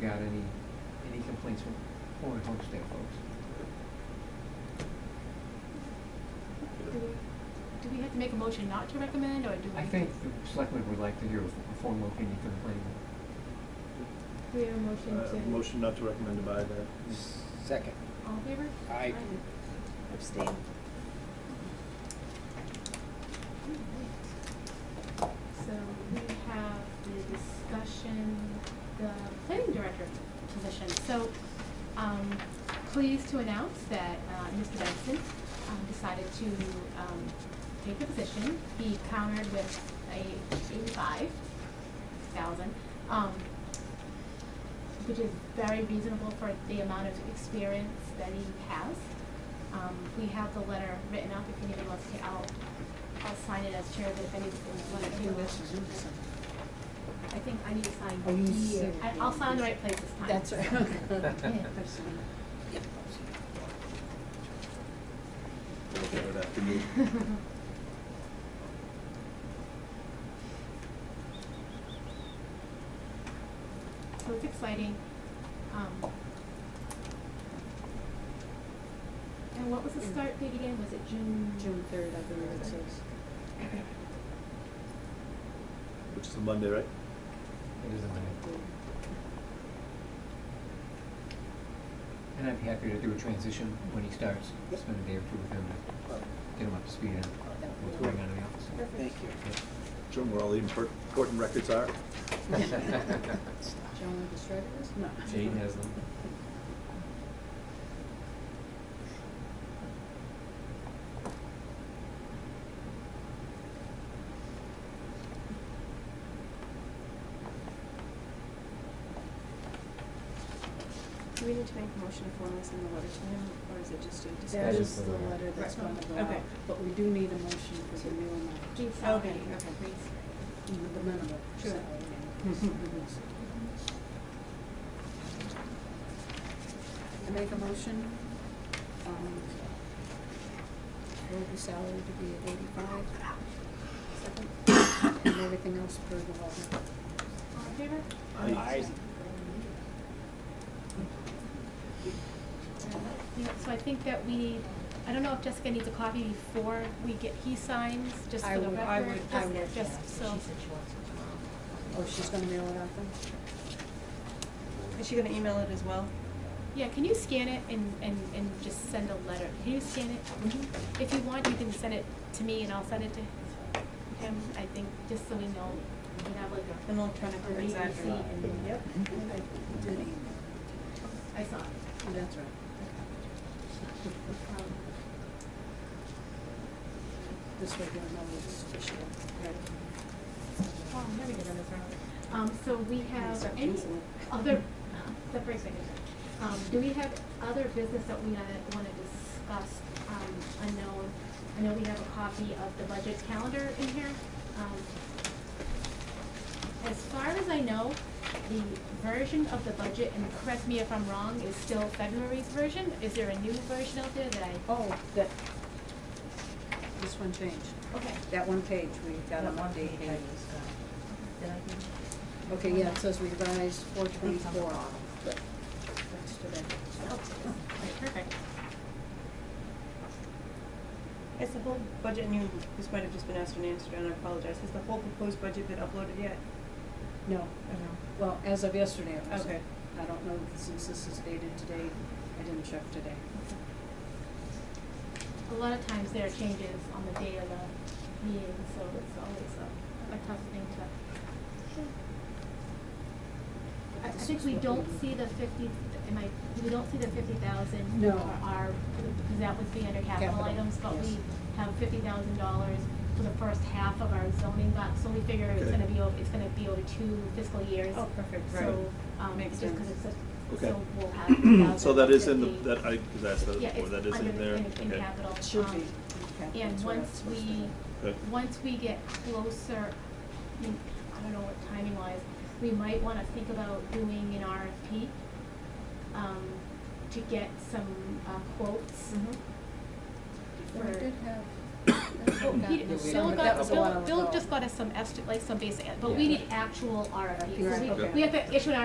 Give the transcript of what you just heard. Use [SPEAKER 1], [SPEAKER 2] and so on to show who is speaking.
[SPEAKER 1] got any, any complaints from former homestead folks.
[SPEAKER 2] Do we- do we have to make a motion not to recommend, or do we?
[SPEAKER 1] I think the selectmen would like to hear a formal opinion from the planning board.
[SPEAKER 3] We have a motion
[SPEAKER 4] Uh,
[SPEAKER 3] to.
[SPEAKER 4] Motion not to recommend to buy that.
[SPEAKER 5] Second.
[SPEAKER 2] All in favor?
[SPEAKER 5] Aye.
[SPEAKER 3] Abstain.
[SPEAKER 2] So we have the discussion, the planning director position. So, um, pleased to announce that, uh, Mr. Benson, um, decided to, um, take the position. He countered with a eighty-five thousand, um, which is very reasonable for the amount of experience that he has. Um, we have the letter written up, if anybody wants to, I'll, I'll sign it as chair, but if anybody wants to. I think I need to sign
[SPEAKER 6] Oh, you
[SPEAKER 2] here.
[SPEAKER 6] said-
[SPEAKER 2] I, I'll sign the right place this time.
[SPEAKER 6] That's right.
[SPEAKER 4] We'll look at it after
[SPEAKER 2] All
[SPEAKER 4] you.
[SPEAKER 2] So it's exciting. Um, and what was the start date again? Was it June?
[SPEAKER 6] Mm. June third, I believe it says.
[SPEAKER 4] Which is a Monday, right?
[SPEAKER 1] It is a minute. And I'd be happy to do a transition when he starts,
[SPEAKER 5] Yep.
[SPEAKER 1] spend a day or two with him, to get him up to speed on what's going on in the office.
[SPEAKER 5] Thank
[SPEAKER 4] Show 'em where all the impor- important records are.
[SPEAKER 6] John with the Shredders? No.
[SPEAKER 1] Jane has them.
[SPEAKER 3] Do we need to make a motion for this in the letter to him, or is it just a
[SPEAKER 6] That
[SPEAKER 1] That
[SPEAKER 3] discussion?
[SPEAKER 1] is
[SPEAKER 6] is the
[SPEAKER 1] the-
[SPEAKER 6] letter that's
[SPEAKER 3] Right.
[SPEAKER 6] gonna go
[SPEAKER 3] Okay.
[SPEAKER 6] out, but we do need a motion for the new amount,
[SPEAKER 2] June
[SPEAKER 3] Okay,
[SPEAKER 2] salary.
[SPEAKER 3] okay.
[SPEAKER 6] the minimum
[SPEAKER 2] Sure.
[SPEAKER 6] salary increase. I make a motion, um, for the salary to be at eighty-five. Second. And everything else per the law.
[SPEAKER 2] All in favor?
[SPEAKER 4] Aye.
[SPEAKER 5] Aye.
[SPEAKER 2] Yeah, so I think that we need, I don't know if Jessica needs a copy before we get, he signs, just
[SPEAKER 6] I
[SPEAKER 2] for the
[SPEAKER 6] would-
[SPEAKER 2] record.
[SPEAKER 6] I would- I
[SPEAKER 2] just-
[SPEAKER 6] would, yeah.
[SPEAKER 2] Just so,
[SPEAKER 6] Oh, she's gonna mail it out then?
[SPEAKER 3] Oh, Is she gonna email it as well?
[SPEAKER 2] yeah, can you scan it and, and, and just send a letter? Can you scan it? If you want, you can send it to me and I'll send it to him, I think, just so we know, we can have like a.
[SPEAKER 3] An electronic
[SPEAKER 2] a read
[SPEAKER 3] exactly.
[SPEAKER 2] receipt and-
[SPEAKER 6] Yep.
[SPEAKER 2] I saw it.
[SPEAKER 6] That's right.
[SPEAKER 2] Um,
[SPEAKER 6] This way you'll know it's official.
[SPEAKER 2] Oh, I'm never gonna run this around. Um, so we have
[SPEAKER 6] Except
[SPEAKER 2] any
[SPEAKER 6] Jason.
[SPEAKER 2] other, that breaks my neck. Um, do we have other business that we wanna, wanna discuss, um, unknown? I know we have a copy of the budget calendar in here. Um, As far as I know, the version of the budget, and correct me if I'm wrong, is still February's version. Is there a new version out there that I?
[SPEAKER 6] Oh, that, this one changed.
[SPEAKER 2] Okay.
[SPEAKER 6] That one page, we got an update page. Okay, yeah, it says revised four twenty-four. That's today.
[SPEAKER 2] Oh, Perfect.
[SPEAKER 3] Is the whole budget, and you, this might have just been asked and answered, and I apologize, has the whole proposed budget been uploaded yet?
[SPEAKER 6] No, well, as of yesterday, it was.
[SPEAKER 3] Okay.
[SPEAKER 6] I don't know, since this is dated today, I didn't check today.
[SPEAKER 2] A lot of times there are changes on the day of the meeting, so it's always a, a tough thing to. I, I think we don't see the fifty, am I, we don't see the fifty thousand.
[SPEAKER 6] No.
[SPEAKER 2] Our, because that would be under capital
[SPEAKER 6] Capital,
[SPEAKER 2] items, but
[SPEAKER 6] yes.
[SPEAKER 2] we have fifty thousand dollars for the first half of our zoning box, so we figure it's
[SPEAKER 4] Okay.
[SPEAKER 2] gonna be, over. it's gonna be over two fiscal years.
[SPEAKER 3] Oh, perfect,
[SPEAKER 2] So,
[SPEAKER 3] right.
[SPEAKER 2] um,
[SPEAKER 3] Makes
[SPEAKER 2] just because
[SPEAKER 3] sense.
[SPEAKER 2] it's a,
[SPEAKER 4] Okay.
[SPEAKER 2] so we'll have.
[SPEAKER 4] So that is in the,
[SPEAKER 2] 50,050.
[SPEAKER 4] that, I was asked that
[SPEAKER 2] Yeah,
[SPEAKER 4] before,
[SPEAKER 2] it's
[SPEAKER 4] that is
[SPEAKER 2] under
[SPEAKER 4] in
[SPEAKER 2] the-
[SPEAKER 4] there?
[SPEAKER 2] in- in
[SPEAKER 4] Okay.
[SPEAKER 2] capital.
[SPEAKER 6] It should
[SPEAKER 2] Um,
[SPEAKER 6] be. Okay,
[SPEAKER 2] And
[SPEAKER 6] that's where
[SPEAKER 2] once
[SPEAKER 6] it's supposed to
[SPEAKER 2] we,
[SPEAKER 6] be.
[SPEAKER 4] Good.
[SPEAKER 2] once we get closer, I mean, I don't know what timing wise, we might wanna think about doing an RFP, um, to get some, uh, quotes.
[SPEAKER 3] Mm-hmm.
[SPEAKER 6] Well, I
[SPEAKER 2] for-
[SPEAKER 6] Mm-hmm. did have, that's what
[SPEAKER 2] Well,
[SPEAKER 6] got
[SPEAKER 2] Peter-
[SPEAKER 6] me,
[SPEAKER 2] Bill
[SPEAKER 6] but that
[SPEAKER 2] got,
[SPEAKER 6] was a while
[SPEAKER 2] Bill,
[SPEAKER 6] ago.
[SPEAKER 2] Bill just got us some esti- like some basic, but we
[SPEAKER 1] Yeah.
[SPEAKER 2] need actual RFPs, so
[SPEAKER 6] Right,
[SPEAKER 2] we,
[SPEAKER 6] okay.
[SPEAKER 2] we have to issue an